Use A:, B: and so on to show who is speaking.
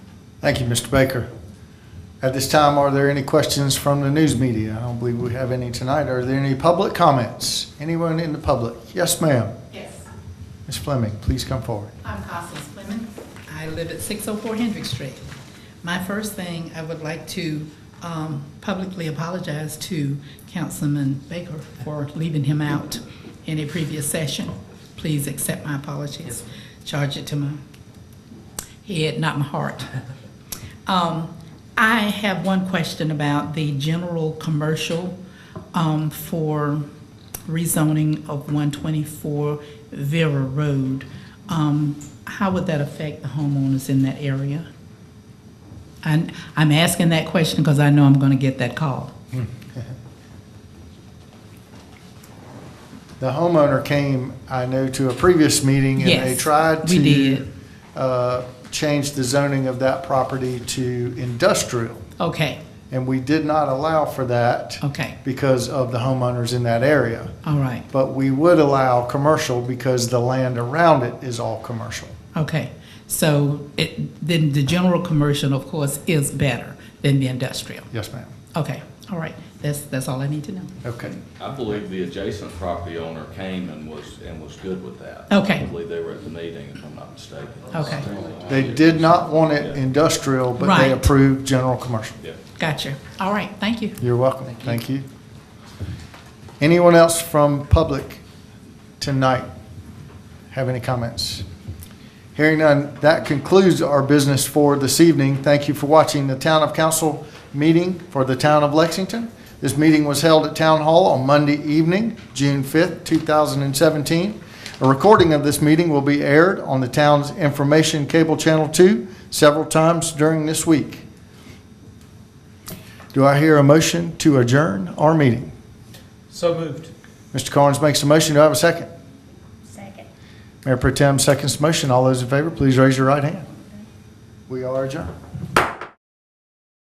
A: Thank you, Mr. Baker. At this time, are there any questions from the news media? I don't believe we have any tonight. Are there any public comments? Anyone in the public? Yes, ma'am.
B: Yes,
A: Ms. Fleming, please come forward.
B: I'm Constance Fleming. I live at 604 Hendrick Street. My first thing, I would like to um, publicly apologize to Councilman Baker for leaving him out in a previous session. Please accept my apologies. Charge it to my head, not my heart. Um, I have one question about the general commercial um, for rezoning of 124 Vera Road. Um, How would that affect the homeowners in that area? And I'm asking that question because I know I'm going to get that call.
A: The homeowner came, I know, to a previous meeting and they
B: Yes,
A: tried
B: we
A: to
B: did.
A: uh, change the zoning of that property to industrial.
B: Okay,
A: And we did not allow for that
B: okay,
A: because of the homeowners in that area.
B: all right,
A: But we would allow commercial because the land around it is all commercial.
B: okay. So it, then the general commercial, of course, is better than the industrial.
A: Yes, ma'am.
B: Okay, all right, that's, that's all I need to know.
A: Okay.
C: I believe the adjacent property owner came and was, and was good with that.
B: Okay.
C: I believe they were at the meeting, if I'm not mistaken.
B: Okay.
A: They did not want it industrial, but they
B: Right.
A: approved general commercial.
C: Yeah.
B: Gotcha. All right, thank you.
A: You're welcome. Thank you. Anyone else from public tonight have any comments? Hearing none, that concludes our business for this evening. Thank you for watching the Town of Council meeting for the Town of Lexington. This meeting was held at Town Hall on Monday evening, June 5th, 2017. A recording of this meeting will be aired on the town's information cable channel 2 several times during this week. Do I hear a motion to adjourn our meeting?
D: So moved.
A: Mr. Carnes makes a motion. Do I have a second?
E: Second.
A: Mayor Pro Tem seconds the motion. All those in favor, please raise your right hand. We are adjourned.